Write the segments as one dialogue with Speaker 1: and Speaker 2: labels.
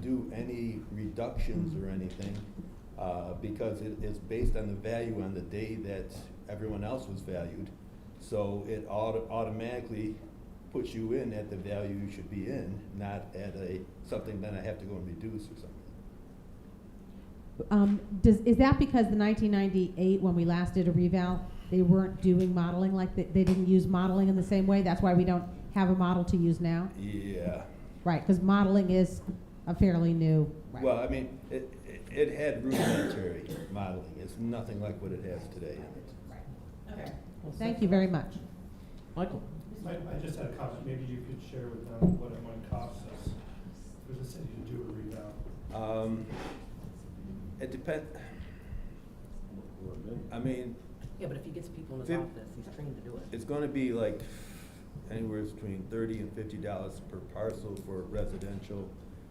Speaker 1: do any reductions or anything, uh, because it is based on the value on the day that everyone else was valued. So it auto- automatically puts you in at the value you should be in, not at a, something that I have to go and reduce or something.
Speaker 2: Um, does, is that because the nineteen ninety-eight, when we last did a reval, they weren't doing modeling like, they, they didn't use modeling in the same way? That's why we don't have a model to use now?
Speaker 1: Yeah.
Speaker 2: Right, because modeling is a fairly new, right.
Speaker 1: Well, I mean, it, it- it had rudimentary modeling. It's nothing like what it has today in it.
Speaker 3: Okay.
Speaker 2: Thank you very much.
Speaker 4: Michael?
Speaker 5: I, I just had a comment, maybe you could share with them what it might cost us for the city to do a rebound.
Speaker 1: Um, It depend, I mean,
Speaker 3: Yeah, but if he gets people in his
Speaker 1: Fif-
Speaker 3: office, he's trained to do it.
Speaker 1: it's gonna be like anywhere between thirty and fifty dollars per parcel for residential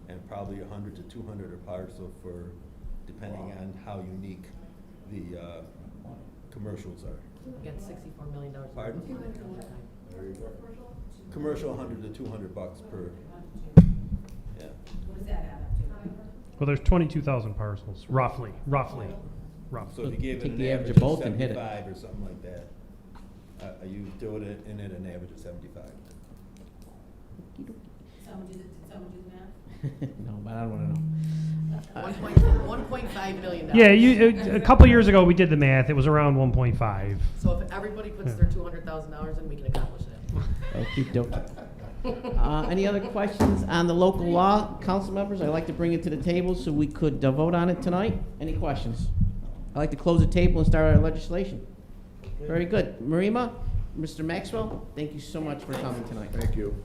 Speaker 1: and probably a hundred to two hundred a parcel for, depending on how unique the, uh, commercials are.
Speaker 3: He got sixty-four million dollars.
Speaker 1: Pardon? Commercial, hundred to two hundred bucks per, yeah.
Speaker 6: Well, there's 22,000 parcels, roughly, roughly,
Speaker 1: So
Speaker 6: roughly.
Speaker 1: if you gave it
Speaker 4: Take
Speaker 1: an
Speaker 4: the average
Speaker 1: average
Speaker 4: of
Speaker 1: of
Speaker 4: both and hit it.
Speaker 1: seventy-five or something like that, uh, you do it in at an average of seventy-five.
Speaker 7: Someone do the, did someone do the math?
Speaker 4: No, but I don't wanna know.
Speaker 3: One point, one point five million dollars.
Speaker 6: Yeah, you, uh, a, a couple years ago, we did the math, it was around 1.5.
Speaker 3: So if everybody puts their two hundred thousand dollars in, we can accomplish it.
Speaker 4: Okey-dokey. Uh, any other questions on the local law, council members? I'd like to bring it to the table so we could uh, vote on it tonight. Any questions? I'd like to close the table and start our legislation. Very good. Marima, Mr. Maxwell, thank you so much for coming tonight.
Speaker 8: Thank you.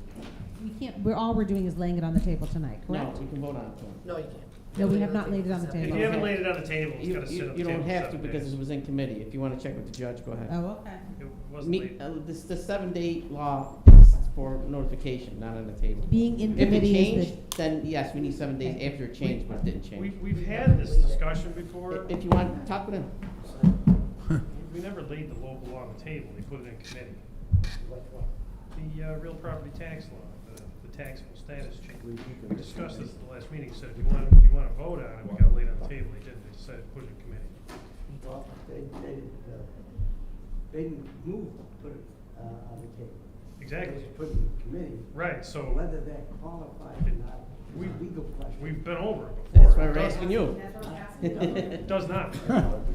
Speaker 2: We can't, we're, all we're doing is laying it on the table tonight,
Speaker 4: No,
Speaker 2: correct?
Speaker 4: we can vote on it tonight.
Speaker 3: No, you can't.
Speaker 2: No, we have not laid it on the
Speaker 3: So-
Speaker 2: table.
Speaker 6: If you haven't laid it on the table, it's
Speaker 4: You,
Speaker 6: gotta sit
Speaker 4: you,
Speaker 6: on the
Speaker 4: you
Speaker 6: table.
Speaker 4: don't have to
Speaker 6: seven
Speaker 4: because
Speaker 6: days.
Speaker 4: it was in committee. If you wanna check with the judge, go ahead.
Speaker 2: Oh, okay.
Speaker 6: It wasn't
Speaker 4: Me,
Speaker 6: laid.
Speaker 4: uh, this, the seven-day law is for notification, not on the table.
Speaker 2: Being in
Speaker 4: If it
Speaker 2: committee is the.
Speaker 4: changed, then yes, we need seven days after it changed, but it didn't
Speaker 6: We,
Speaker 4: change.
Speaker 6: we've had this discussion before,
Speaker 4: If you want, talk with him.
Speaker 6: we never laid the local law on the table, we put it in committee. The, uh, real property tax law, the, the taxable status change. We discussed this at the last meeting, said if you want, if you wanna vote on it, we gotta lay it on the table, they didn't, they said put it in committee.
Speaker 9: Well, they, they, didn't, uh, they didn't move to put it, uh, on the table.
Speaker 6: Exactly,
Speaker 9: It was put in the committee,
Speaker 6: right, so.
Speaker 9: whether that qualified or not,
Speaker 6: We-
Speaker 9: is a legal question.
Speaker 6: We've been over it before.
Speaker 4: That's why
Speaker 6: It
Speaker 4: we're
Speaker 6: does-
Speaker 4: asking you.
Speaker 6: it Does not.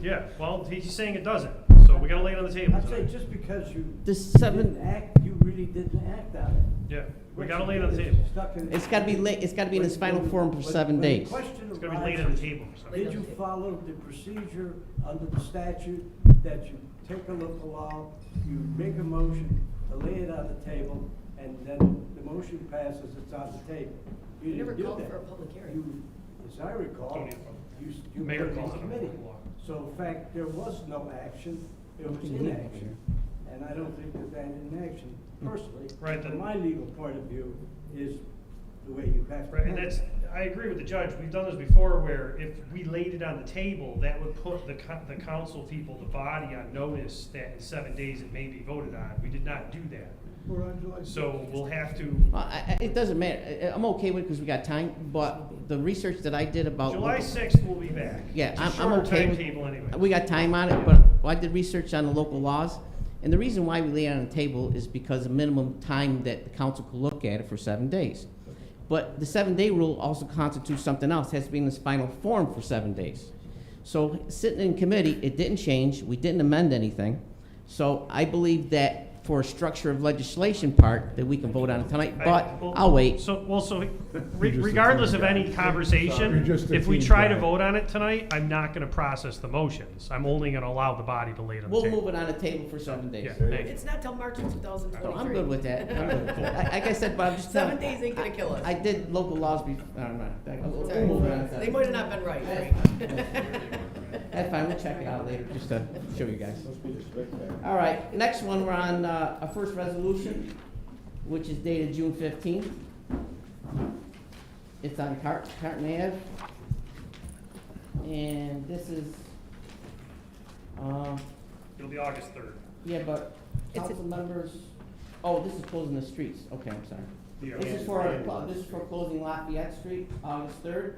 Speaker 6: Yeah, well, he's saying it doesn't, so we gotta lay it on the table
Speaker 9: I'd say
Speaker 6: tonight.
Speaker 9: just because you
Speaker 4: The
Speaker 9: didn't
Speaker 4: seven,
Speaker 9: act, you really didn't act on it.
Speaker 6: Yeah, we
Speaker 9: What
Speaker 6: gotta
Speaker 9: you
Speaker 6: lay it on the
Speaker 9: did is
Speaker 6: table.
Speaker 9: stuck in-
Speaker 4: it's gotta be late, it's gotta be in its final
Speaker 9: When-
Speaker 4: form for
Speaker 9: when-
Speaker 4: seven
Speaker 9: when the
Speaker 4: days.
Speaker 9: question
Speaker 6: It's gonna be laid on the
Speaker 9: arises,
Speaker 6: table or something.
Speaker 9: Did you follow the procedure under the statute that you take a local law, you make a motion, to lay it on the table, and then the motion passes, it's on the table? You
Speaker 3: You never
Speaker 9: didn't do
Speaker 3: called
Speaker 9: that.
Speaker 3: for a public hearing.
Speaker 9: You, as I recall,
Speaker 6: Don't need a public
Speaker 9: you, s- you
Speaker 6: uh, Mayor
Speaker 9: were in
Speaker 6: calls it a
Speaker 9: committee.
Speaker 6: local law.
Speaker 9: So in fact, there was no action, it was
Speaker 4: Nothing legal
Speaker 9: inaction. And I don't think that that inaction, personally,
Speaker 6: Right, the-
Speaker 9: from my legal point of view, is the way you have to.
Speaker 6: Right, and
Speaker 9: handle
Speaker 6: that's,
Speaker 9: it.
Speaker 6: I agree with the judge, we've done this before where if we laid it on the table, that would put the co- the council people, the body on notice that in seven days it may be voted on. We did not do that.
Speaker 5: We're on July
Speaker 6: So we'll have to,
Speaker 4: Well, I, I, it doesn't matter. I- I'm okay with it because we got time, but the research that I did about.
Speaker 6: July
Speaker 4: local-
Speaker 6: sixth, we'll be back.
Speaker 4: Uh, Yeah,
Speaker 6: It's a
Speaker 4: I'm, I'm
Speaker 6: shorter
Speaker 4: okay with.
Speaker 6: Timetable anyway.
Speaker 4: We got time on it, but I did research on the local laws. And the reason why we lay it on the table is because the minimum time that the council could look at it for seven days. But the seven-day rule also constitutes something else, has to be in its final form for seven days. So sitting in committee, it didn't change, we didn't amend anything. So I believe that for a structure of legislation part, that we can vote on it tonight, but
Speaker 6: I- well,
Speaker 4: I'll wait.
Speaker 6: So, well, so
Speaker 8: You're
Speaker 6: re-
Speaker 8: just a
Speaker 6: regardless
Speaker 8: team
Speaker 6: of any
Speaker 8: guy.
Speaker 6: conversation,
Speaker 8: You're just a
Speaker 6: if we
Speaker 8: team
Speaker 6: try to
Speaker 8: guy.
Speaker 6: vote on it tonight, I'm not gonna process the motions. I'm only gonna allow the body to lay it on the
Speaker 4: We'll move
Speaker 6: table.
Speaker 4: it on the table for seven days.
Speaker 6: Yeah, thank you.
Speaker 3: It's not till March of two thousand
Speaker 4: So
Speaker 3: twenty-three.
Speaker 4: I'm good with that. I'm good with that. I- Like I said, but I'm just
Speaker 3: Seven
Speaker 4: telling-
Speaker 3: days ain't gonna kill us.
Speaker 4: I did local laws before. No, no,
Speaker 3: It's all
Speaker 4: no. We'll move
Speaker 3: right.
Speaker 4: on.
Speaker 3: They might have not been right, right?
Speaker 4: That's fine, we'll check it out later, just to show you guys. All right, next one, we're on uh, a first resolution, which is dated June fifteenth. It's on Cart, Carton Ave. And this is, uh,
Speaker 6: It'll be August third.
Speaker 4: yeah, but
Speaker 3: It's a-
Speaker 4: council members, oh, this is closing the streets, okay, I'm sorry.
Speaker 6: The
Speaker 4: This is
Speaker 6: Arkansas
Speaker 4: for,
Speaker 6: Land.
Speaker 4: this is for closing Lafayette Street, August third.